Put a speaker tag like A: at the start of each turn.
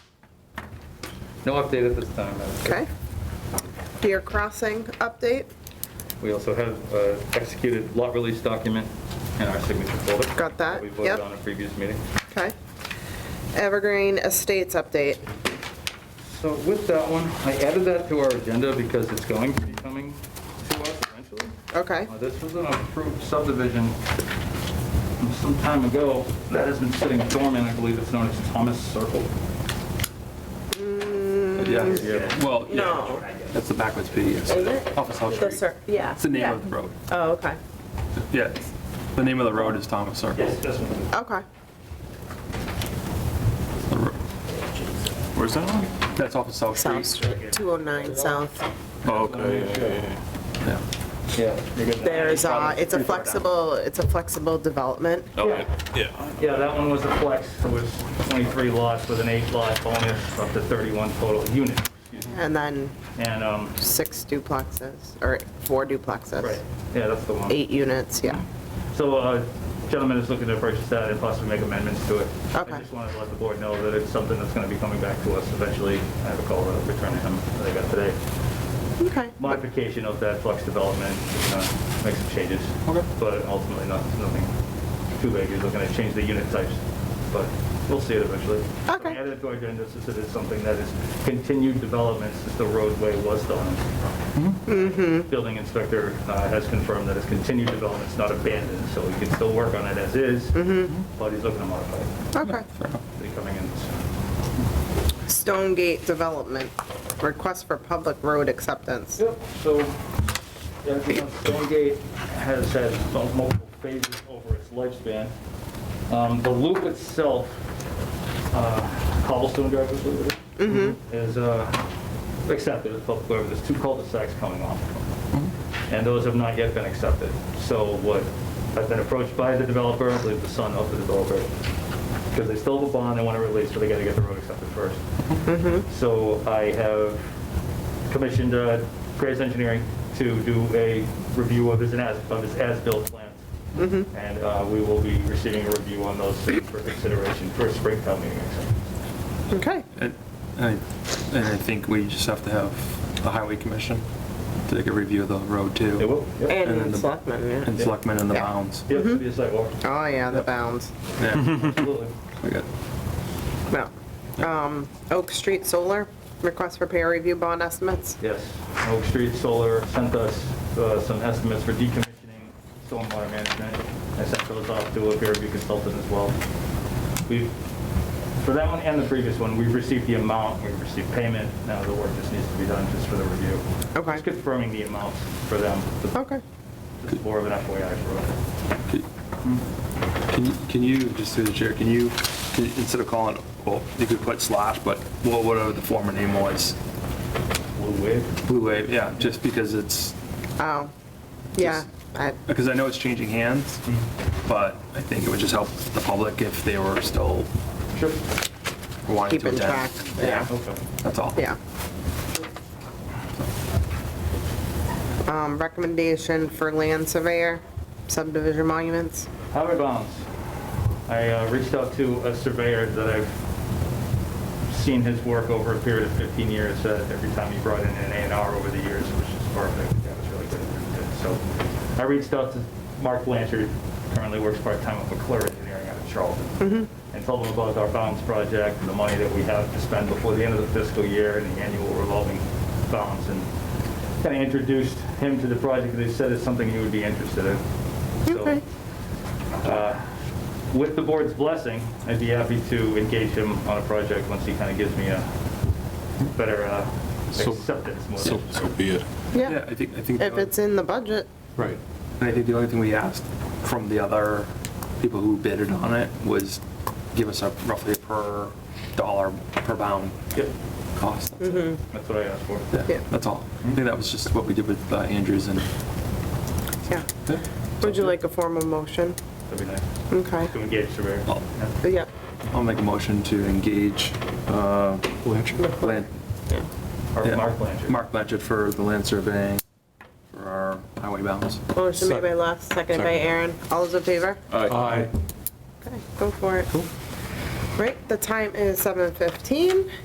A: No update at this time. Madam Chair.
B: Okay. Deer Crossing update,
A: We also have uh, executed lot release document in our signature folder.
B: Got that,
A: We voted
B: yep.
A: on a previous meeting.
B: okay. Evergreen Estates update,
A: So with that one, I added that to our agenda because it's going to be coming to us eventually.
B: okay,
A: Uh, This was an approved subdivision from some time ago that has been sitting dormant. I believe it's known as Thomas Circle.
C: Yeah, well, yeah,
B: no.
C: that's the backwards P, yes.
B: Is it?
C: Off of South
B: The
C: Street.
B: cir, yeah.
C: It's the name of the road.
B: Oh, okay,
C: Yeah, the name of the road is Thomas Circle.
B: okay,
C: The ro- Where's that on? That's off of South
B: South
C: Street.
B: Street, 209 South.
C: Oh, okay, yeah, yeah, yeah, yeah.
A: Yeah.
B: There's, uh, it's a flexible, it's a flexible development,
C: Yeah. Okay, yeah.
A: Yeah, that one was a flex. It was 23 lots with an eight lot bonus up to 31 total units.
C: Mm-hmm.
B: and then
A: And, um,
B: six duplexes, or four duplexes.
A: yeah, that's the one.
B: Eight units, yeah,
A: So uh, gentleman is looking to purchase that and possibly make amendments to it.
B: Okay.
A: I just wanted to let the board know that it's something that's going to be coming back to us eventually. I have a call that I'll return to him that I got today.
B: okay.
A: Modification of that flux development, uh, make some changes.
C: Okay.
A: But ultimately, not, nothing too big. You're looking to change the unit types, but we'll see it eventually.
B: Okay.
A: Added to our agenda, since it is something that is continued development since the roadway was done. Building inspector uh, has confirmed that it's continued development, it's not abandoned, so we can still work on it as is, but he's looking to modify it.
B: Okay.
C: Fair enough.
A: Be coming in soon.
B: Stonegate Development, request for public road acceptance.
A: Yep, so, yeah, you know, Stonegate has had some multiple phases over its lifespan. Um, The loop itself, uh, cobblestone drive, I believe it is, is uh, accepted as public road. There's two cul-de-sacs coming off of them. and those have not yet been accepted. So what, I've been approached by the developer, I believe the son of the developer, because they still have a bond, they want to release, so they got to get the road accepted first. So I have commissioned uh, Graves Engineering to do a review of his as, of his as-built plans. And uh, we will be receiving a review on those soon for consideration for a spring town meeting.
B: Okay,
C: And and I and I think we just have to have the highway commission take a review of the road too.
A: It will, yep.
C: And then
B: and
C: the-
B: selectmen, yeah.
C: And selectmen and the
B: Yeah.
C: bounds.
A: Yep, it'll be a site walk,
B: Oh, yeah, the bounds,
C: Yeah,
A: absolutely.
C: we got,
B: no. Um, Oak Street Solar, request for peer review bond estimates.
A: Yes, Oak Street Solar sent us uh, some estimates for decommissioning stormwater management. I sent those off to a peer review consultant as well. We've, for that one and the previous one, we've received the amount, we've received payment. Now the work just needs to be done just for the review.
B: Okay.
A: Just confirming the amounts for them.
B: Okay.
A: It's more of an FYI for us.
C: can you, can you, just through the chair, can you, can you- instead of calling, it- well, you could put slash, but wha- whatever the former name was,
A: Blue wave.
C: Blue Wave, yeah, just because it's,
B: Oh, yeah, I,
C: because I know it's changing hands, but I think it would just help the public if they were still
A: Sure.
C: wanting to
B: keeping track,
C: attend.
B: yeah,
A: Okay.
C: That's all.
B: yeah. Um, recommendation for land surveyor, subdivision monuments.
A: Highway bounds. I uh, reached out to a surveyor that I've seen his work over a period of 15 years, uh, every time he brought in an A and R over the years, which is perfect, that was really good, really good. So I reached out to Mark Blanchard, currently works part-time at McClure Engineering out of Charlton, and told him about our bounds project, and the money that we have to spend before the end of the fiscal year, and the annual revolving bounds, and kind of introduced him to the project, and he said it's something he would be interested in. So
B: Okay,
A: with the board's blessing, I'd be happy to engage him on a project once he kind of gives me a better uh,
D: So-
A: acceptance. more
D: So,
A: than-
D: so be it.
C: Yeah,
B: yeah,
C: I think, I think.
B: if it's in the budget,
D: Right.
C: And I think the only thing we asked from the other people who bidded on it was give us a roughly per dollar per bound
A: Yep,
C: cost. That's it.
A: that's what I asked for.
B: Mm-hmm. Yeah.
C: Yeah, that's all. I think that was just what we did with uh, Andrews and.
B: yeah. Would you like a formal motion?
A: That'd be nice.
B: Okay,
A: To engage surveyor.
C: I'll-
A: Yeah.
B: yeah,
C: I'll make a motion to engage uh, Lan-
A: Or
C: yeah,
A: Mark Blanchard.
C: Mark Blanchard for the land surveying for our highway bounds.
B: motion made by Les, seconded by
D: Second.
B: Aaron, all those in favor?
D: Aye.
B: Okay, go for it. Right, the time is 7:15.